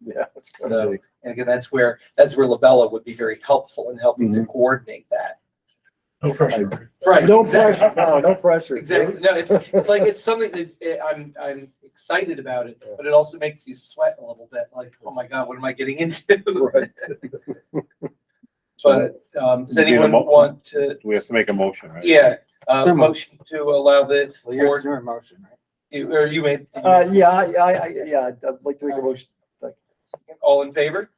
Yeah, it's So- gonna be. And again, that's where, that's where Labella would be very helpful in helping Mm-hmm. to coordinate that. No pressure. Right. No exactly. pressure, no, no pressure. Exactly. No, it's, it's like, it's something that eh, I'm, I'm excited about it, but it also makes you sweat a little bit, like, oh my God, what am I getting into? Right. But, um, does Do we have a anyone mo- want to? We have to make a motion, right? Yeah, uh, So moved. motion to allow the Well, you're, board, it's your motion, right? you- or you made, Uh, yeah, I, I, I, yeah, I'd I'd like to make a motion. all in favor?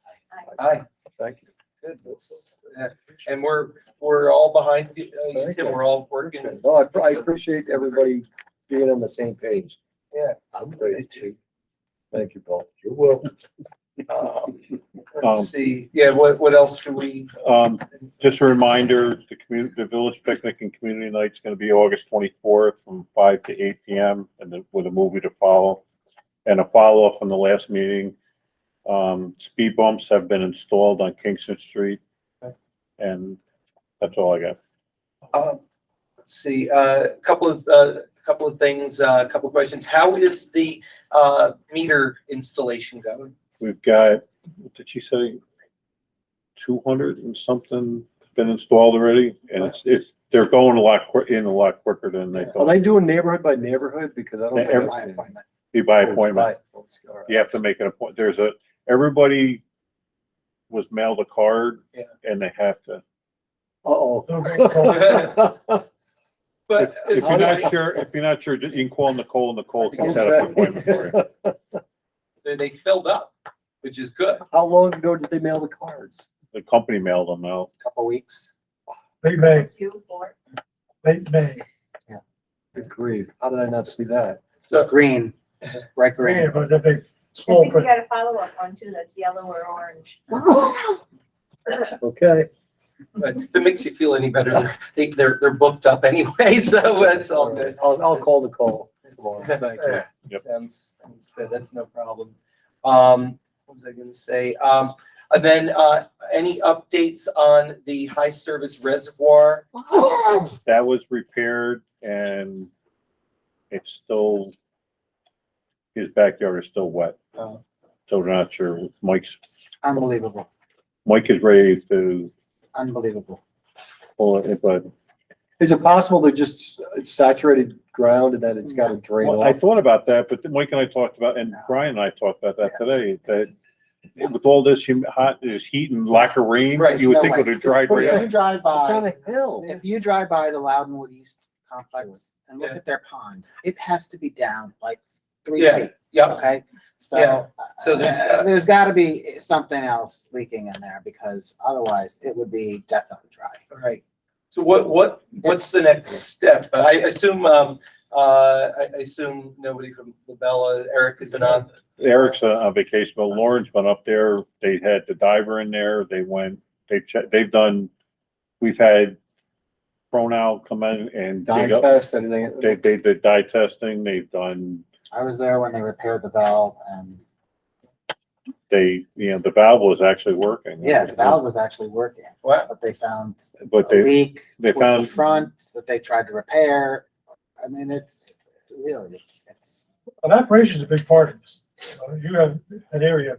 Aye. Thank you. Good. That's- yeah. And we're, we're all behind you, uh, you, Thank Tim, you. we're all working. No, I, I appreciate everybody being on the same page. Yeah. I'm great too. Thank you, Paul. You're welcome. Um, Um, Let's see, yeah, what, what else do we? Um, just a reminder, the community, the village picnic and community night's gonna be August twenty-fourth from five to eight P M. And then with a movie to follow. And a follow-up from the last meeting. Um, speed bumps have been installed on Kingston Street. And that's all I got. Um, Let's see, uh, a couple of, a couple of things, uh, a couple of questions. How is the uh, meter installation going? We've got, what did she say? Two hundred and something been installed already and it's, it's, they're going a lot quick, in a lot quicker than they Are thought. they doing neighborhood by neighborhood? Because I don't. think Every- I've By seen it. appointment. Be by appointment. you have to make an appointment. There's a, everybody was mailed a card Yeah. and they have to. Uh-oh. But If is- you're not sure, if you're not sure, you can call Nicole. Nicole can set up an appointment for you. Okay. they they filled up, which is good. How long ago did they mail the cards? The company mailed them out. Couple weeks. Late May, You or late May. Good grief. How did I not see that? So- Green, right Yeah, green. but that big, I small think you print. got a follow-up one too, that's yellow or orange. Okay. But if it makes you feel any better, they, they're, they're booked up anyway, so that's all good. I'll, I'll call the call tomorrow. Thank you. Yep. Sounds, sounds good, that's no problem. Um, what was I gonna say? Um, and then, uh, any updates on the high service reservoir? That was repaired and it's still, his backyard is still wet. Uh, So we're not sure. Mike's, Unbelievable, Mike is ready to unbelievable. pull it, but Is it possible they're just saturated ground and that it's got to drain Well, I off? thought about that, but Mike and I talked about, and Brian and I talked about that today, that with all this hum- hot, this heat and lack of rain, Right, you would no think way. it would have dried right If up. you drive It's on by, a hill. if you drive by the Loudonwood East complex and look Yeah. at their pond, it has to be down like three Yeah. feet, Yeah, okay? Yeah. So, So so there's gotta- there's gotta be something else leaking in there because otherwise it would be definitely dry. all right. So what, what, what's the next step? I assume, um, uh, I I assume nobody from Labella, Eric isn't on. Eric's uh, on on vacation, but Lauren's been up there. They had the diver in there. They went, they've checked, they've done, we've had pronoun come in and Dye dig up. test, anything. They, they did dye testing. They've done, I was there when they repaired the valve and, they, you know, the valve was actually working. yeah, the valve was actually working, What? but they found But a they, leak they towards found- the front that they tried to repair. I mean, it's, really, it's, it's, An operation's a big part of this. You know, You have that area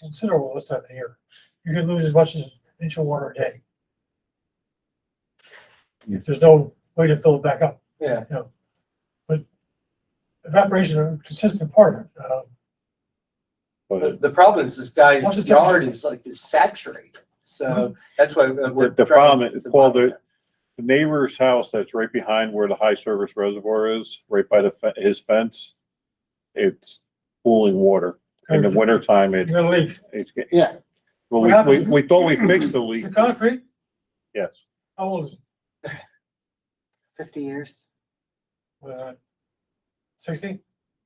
considerable this time of year. You can lose as much as an inch of water a day. If there's no way to fill it back up. Yeah. you know. But evaporation is a consistent part of it. Uh, but The, the problem is this guy's What's the yard is like, is saturated, so that's why uh, we're. The- the trying problem is, to Paul, monitor the neighbor's house that's right behind where the high service reservoir is, right by the, fe- his fence, it's pooling water. In the wintertime, You're it, gonna leak. it's, get- yeah, well, What we, we, happens- we thought we fixed the Is leak, it concrete? yes. How old is it? fifty years. Uh, Sixty?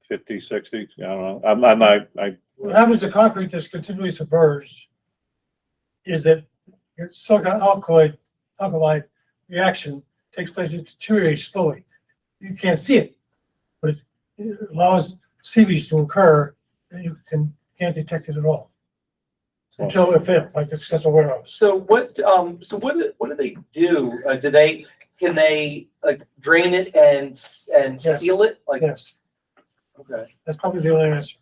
Fifty, sixty, I don't know, I'm, I'm not, I, What happens to concrete that's continually submerged is that your silicon alkali, alkali reaction takes place, it deteriorates slowly. You can't see it, but it allows seepage to occur and you can, can't detect it at all. Until it fails, like the central that. warehouse. So what, um, so what, do- what do they do? Uh, do they, can they like drain it and, s- and Yes. seal it? Like, Yes, okay, that's probably the only answer.